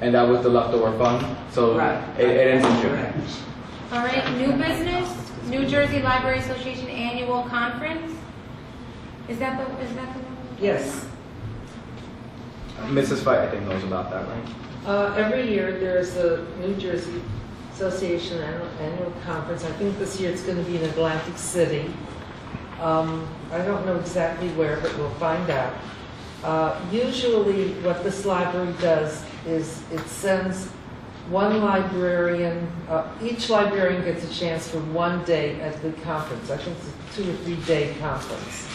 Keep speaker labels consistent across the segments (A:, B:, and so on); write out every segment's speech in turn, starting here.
A: and that was the leftover fund, so
B: Right.
A: it, it ends in June.
B: Correct.
C: All right, new business, New Jersey Library Association Annual Conference. Is that the, is that the one?
B: Yes.
A: Mrs. Fight, I think, knows about that, right?
B: Uh, Every year, there's a New Jersey Association annual annual conference. I think this year it's going to be in Atlantic City. Um, I don't know exactly where, but we'll find out. Uh, Usually, what this library does is it sends one librarian, uh, each librarian gets a chance for one day at the conference. I think it's a two or three-day conference.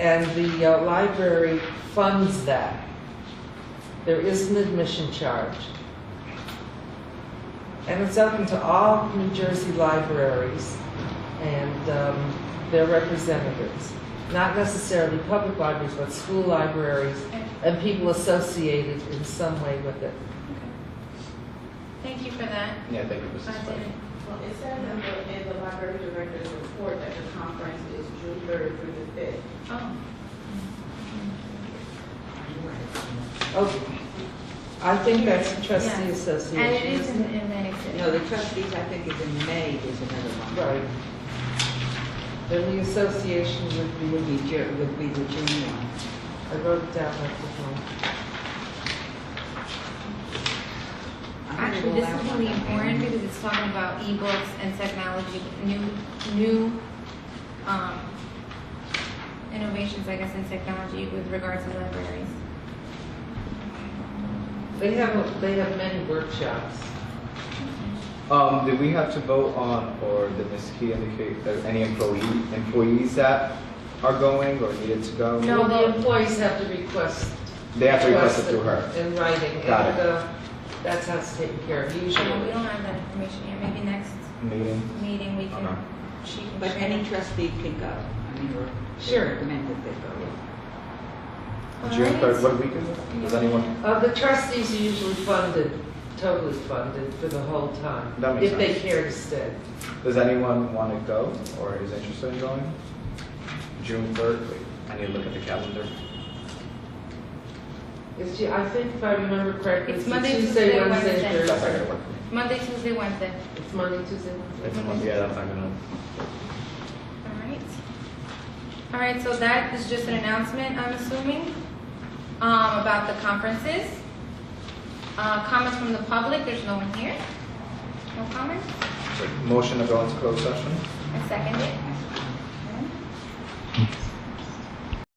B: And the uh, library funds that. There is an admission charge. And it's open to all New Jersey libraries and um, their representatives. Not necessarily public libraries, but school libraries and people associated in some way with it.
C: Thank you for that.
A: Yeah, thank you,
C: I
A: Mrs. Fight.
C: didn't-
D: Well, it says in the, in the library director's report that the conference is June third through the fifth.
C: Oh,
B: Okay. Oh, I think that's the trustee
C: Yes. and it is
B: association.
C: in, in Atlantic City.
E: No, the trustees, I think, is in May is another one.
B: Right. Then the association would
E: It
B: be,
E: Would be, Ju- would be the June one.
B: I wrote it down at the phone.
E: I think
C: Actually,
E: we'll
C: this
E: have
C: is
E: one
C: really
E: on May.
C: important because it's talking about ebooks and technology, new, new, um, innovations, I guess, in technology with regards to libraries.
B: They have, they have many workshops.
A: Um, did we have to vote on, or did Ms. Key indicate that any employee, employees that are going or needed to go?
C: No.
B: Well, the employees have to request.
A: They have to request it through her.
B: In writing,
A: Got
B: and,
A: it.
B: uh, that's how it's taken care of
C: Oh, We
B: usually.
C: don't have that information yet, maybe next
A: Meeting?
C: meeting we can,
A: Okay.
C: she can.
E: But
C: share.
E: any trustee can go. I mean, or it's
B: Sure.
E: recommended they go.
C: All
A: June
C: right.
A: third, what week is it? Does anyone?
B: Uh, the trustees are usually funded, totally funded for the whole time.
A: That makes
B: If they
A: sense.
B: care to stay.
A: Does anyone want to go or is interested in going? June third. I need to look at the calendar.
B: It's, ju- I think if I remember correctly, it's
C: It's
B: the
C: Monday,
B: Tuesday,
C: Tuesday,
B: Wednesday,
C: Wednesday.
A: That's not
B: Thursday.
A: gonna work for me.
C: Monday, Tuesday, Wednesday.
B: It's Monday, Tuesday, Wednesday.
A: It's a month- Yeah, that's not gonna.
C: All right. All right, so that is just an announcement, I'm assuming, um, about the conferences. Uh, comments from the public, there's no one here. No comments?
A: so Motion to go into closed session?
C: I second it.